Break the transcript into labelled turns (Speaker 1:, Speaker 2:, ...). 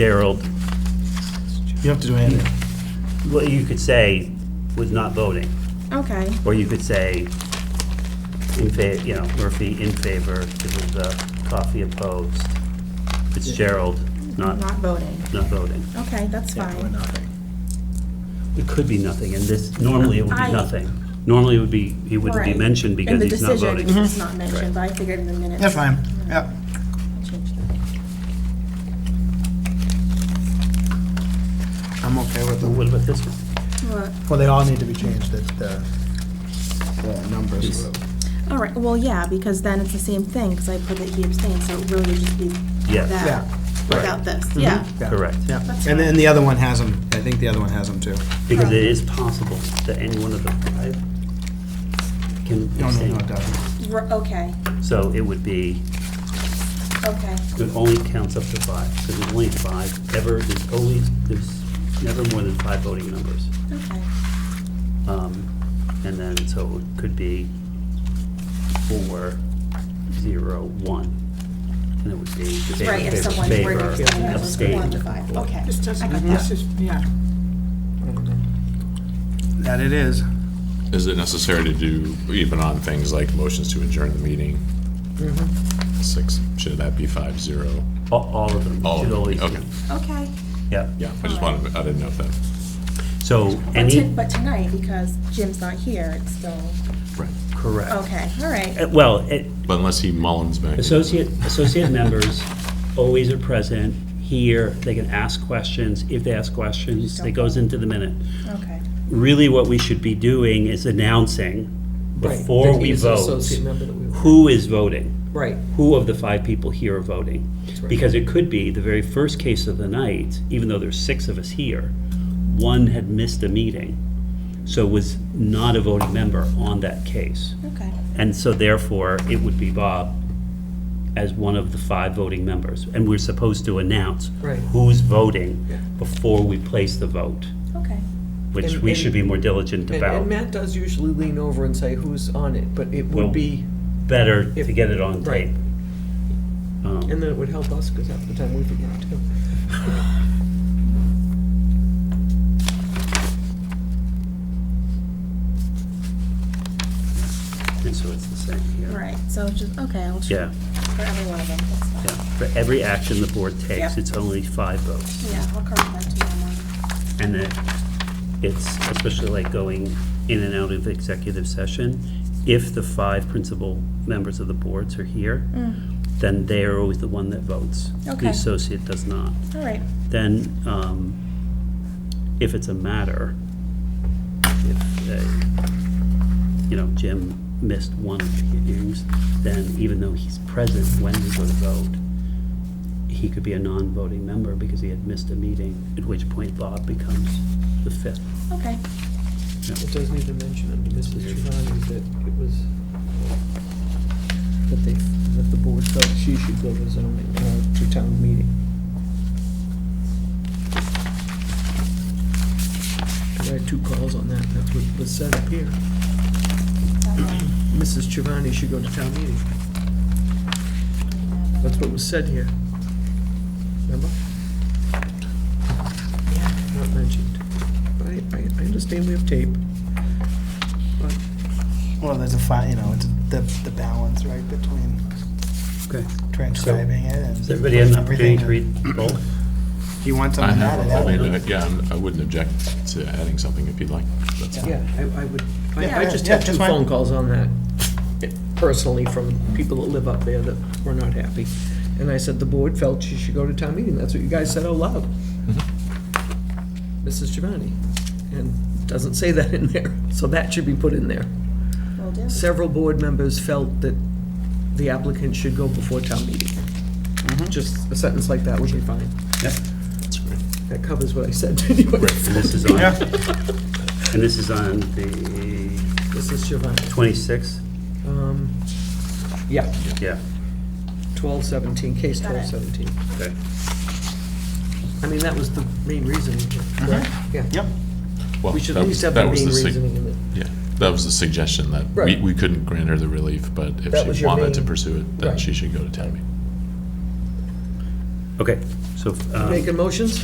Speaker 1: Gerald,
Speaker 2: You have to do anything.
Speaker 1: well, you could say was not voting,
Speaker 3: Okay,
Speaker 1: or you could say in fa, you know, Murphy in favor, it was the coffee opposed, Fitzgerald not,
Speaker 3: not voting.
Speaker 1: not voting.
Speaker 3: Okay, that's fine.
Speaker 1: It could be nothing, and this, normally it would
Speaker 3: I-
Speaker 1: be nothing. Normally it would be, he wouldn't be
Speaker 3: Right.
Speaker 1: mentioned because he's not
Speaker 3: And the
Speaker 1: voting.
Speaker 3: decision Mm-hmm. is not mentioned, but I figured in the minutes.
Speaker 2: Yeah, fine, yeah.
Speaker 3: I'll change that.
Speaker 2: I'm okay with
Speaker 1: What about this one?
Speaker 3: Well,
Speaker 2: Well, they all need to be changed, the, the, the numbers.
Speaker 3: All right, well, yeah, because then it's the same thing, because I put that he abstained, so it really would just be
Speaker 1: Yes.
Speaker 2: Yeah. Mm-hmm.
Speaker 3: that without this, yeah.
Speaker 2: Yeah.
Speaker 1: Correct.
Speaker 2: Yeah,
Speaker 3: That's
Speaker 2: and then
Speaker 3: fine.
Speaker 2: the other one has them, I think the other one has them too.
Speaker 1: Because it is possible that any one of the five can
Speaker 2: No, no, no,
Speaker 1: abstain.
Speaker 2: definitely.
Speaker 3: R- Okay,
Speaker 1: So it would be,
Speaker 3: okay,
Speaker 1: it only counts up to five, because there's only five, ever, there's always, there's never more than five voting members.
Speaker 3: okay.
Speaker 1: Um, And then, so it could be four, zero, one. And it would be favor,
Speaker 3: Right, if someone were
Speaker 1: favor,
Speaker 3: to abstain, it was
Speaker 1: abstain.
Speaker 3: one to five, okay.
Speaker 4: This
Speaker 3: I
Speaker 4: doesn't,
Speaker 3: got
Speaker 4: this
Speaker 3: that.
Speaker 4: is, yeah.
Speaker 2: That it is.
Speaker 5: Is it necessary to do, even on things like motions to adjourn the meeting? Six, should that be five zero?
Speaker 1: A- All of them.
Speaker 5: All of
Speaker 1: should
Speaker 5: them,
Speaker 1: always be.
Speaker 5: okay.
Speaker 3: Okay.
Speaker 1: Yeah,
Speaker 5: Yeah, I just wanted, I didn't know if that.
Speaker 1: so
Speaker 3: But
Speaker 1: any.
Speaker 3: to- But tonight, because Jim's not here, it's still,
Speaker 5: Right.
Speaker 1: Correct.
Speaker 3: okay, all right,
Speaker 1: Uh, Well, it-
Speaker 5: But unless he mullins back.
Speaker 1: associate, associate members always are present here, they can ask questions, if they ask questions, it goes into the minute.
Speaker 3: okay.
Speaker 1: Really, what we should be doing is announcing
Speaker 6: Right,
Speaker 1: before
Speaker 6: that
Speaker 1: we
Speaker 6: he is an
Speaker 1: vote,
Speaker 6: associate member that we were-
Speaker 1: who is voting?
Speaker 6: Right.
Speaker 1: Who of the five people here are voting?
Speaker 6: right.
Speaker 1: Because it could be the very first case of the night, even though there's six of us here, one had missed a meeting, so was not a voting member on that case.
Speaker 3: Okay.
Speaker 1: And so therefore, it would be Bob as one of the five voting members. And we're supposed to announce
Speaker 6: Right.
Speaker 1: who's voting
Speaker 6: Yeah.
Speaker 1: before we place the vote,
Speaker 3: Okay.
Speaker 1: which
Speaker 6: And-
Speaker 1: we
Speaker 6: and-
Speaker 1: should be more diligent
Speaker 6: And, and
Speaker 1: about.
Speaker 6: Matt does usually lean over and say who's on it, but it
Speaker 1: Well-
Speaker 6: would be,
Speaker 1: Better to
Speaker 6: if-
Speaker 1: get it on
Speaker 6: right.
Speaker 1: tape. Um,
Speaker 6: and then it would help us, because half the time we forget too.
Speaker 1: And so it's the same here.
Speaker 3: All right, so just, okay, I'll check
Speaker 1: Yeah,
Speaker 3: for every one of them, that's fine.
Speaker 1: yeah. For every action the board takes,
Speaker 3: Yep.
Speaker 1: it's only five votes.
Speaker 3: Yeah, I'll correct that tomorrow morning.
Speaker 1: And it, it's especially like going in and out of executive session, if the five principal members of the boards are here,
Speaker 6: Mm.
Speaker 1: then they are always the one that votes.
Speaker 3: Okay.
Speaker 1: The associate does not.
Speaker 3: All right,
Speaker 1: Then, um, if it's a matter, if, uh, you know, Jim missed one of the hearings, then even though he's present when we go to vote, he could be a non-voting member because he had missed a meeting, at which point Bob becomes the fifth.
Speaker 3: okay.
Speaker 6: It does need to mention under Mrs. Giovanni that it was, that they, that the board felt she should go to zoning, uh, to town meeting. I had two calls on that, that's what was said up here. Mrs. Giovanni should go to town meeting. That's what was said here. Remember? Not mentioned. But I, I, I understand we have tape. But
Speaker 2: Well, there's a fi, you know, it's the, the balance, right, between
Speaker 1: Okay.
Speaker 2: transcribing it and.
Speaker 1: Does everybody have an opportunity to
Speaker 2: everything.
Speaker 1: read both?
Speaker 2: You want
Speaker 5: I
Speaker 2: something added,
Speaker 5: have, I
Speaker 2: yeah.
Speaker 5: mean, uh, yeah, I'm- I wouldn't object to adding something if you'd like. That's fine.
Speaker 6: Yeah, I, I would,
Speaker 2: Yeah,
Speaker 6: I, I just
Speaker 2: yeah,
Speaker 6: had two
Speaker 2: that's fine.
Speaker 6: phone calls on that personally from people that live up there that were not happy. And I said, the board felt you should go to town meeting, that's what you guys said out loud.
Speaker 2: Mm-hmm.
Speaker 6: Mrs. Giovanni, and it doesn't say that in there, so that should be put in there.
Speaker 3: Will do.
Speaker 6: Several board members felt that the applicant should go before town meeting.
Speaker 2: Mm-hmm.
Speaker 6: Just a sentence like that would be fine.
Speaker 1: Yep.
Speaker 5: That's great.
Speaker 6: That covers what I said anyway.
Speaker 1: And this is on,
Speaker 2: Yeah.
Speaker 1: and this is on the
Speaker 6: Mrs. Giovanni,
Speaker 1: twenty-sixth?
Speaker 6: um, yeah.
Speaker 1: Yeah,
Speaker 6: Twelve seventeen, case
Speaker 3: Got it.
Speaker 6: twelve seventeen.
Speaker 1: okay.
Speaker 6: I mean, that was the main reason, correct? Yeah.
Speaker 2: Yep,
Speaker 5: Well,
Speaker 6: We should
Speaker 5: Mm-hmm. that
Speaker 6: at
Speaker 5: was- that
Speaker 6: least have the main
Speaker 5: was sug-
Speaker 6: reasoning in it.
Speaker 5: Yeah, that was the suggestion, that we,
Speaker 6: Right.
Speaker 5: we couldn't grant her the relief, but if
Speaker 6: That was
Speaker 5: she
Speaker 6: your
Speaker 5: wanted to
Speaker 6: main-
Speaker 5: pursue it, then
Speaker 6: Right.
Speaker 5: she should go to town meeting.
Speaker 1: Okay, So, um,
Speaker 6: Making motions?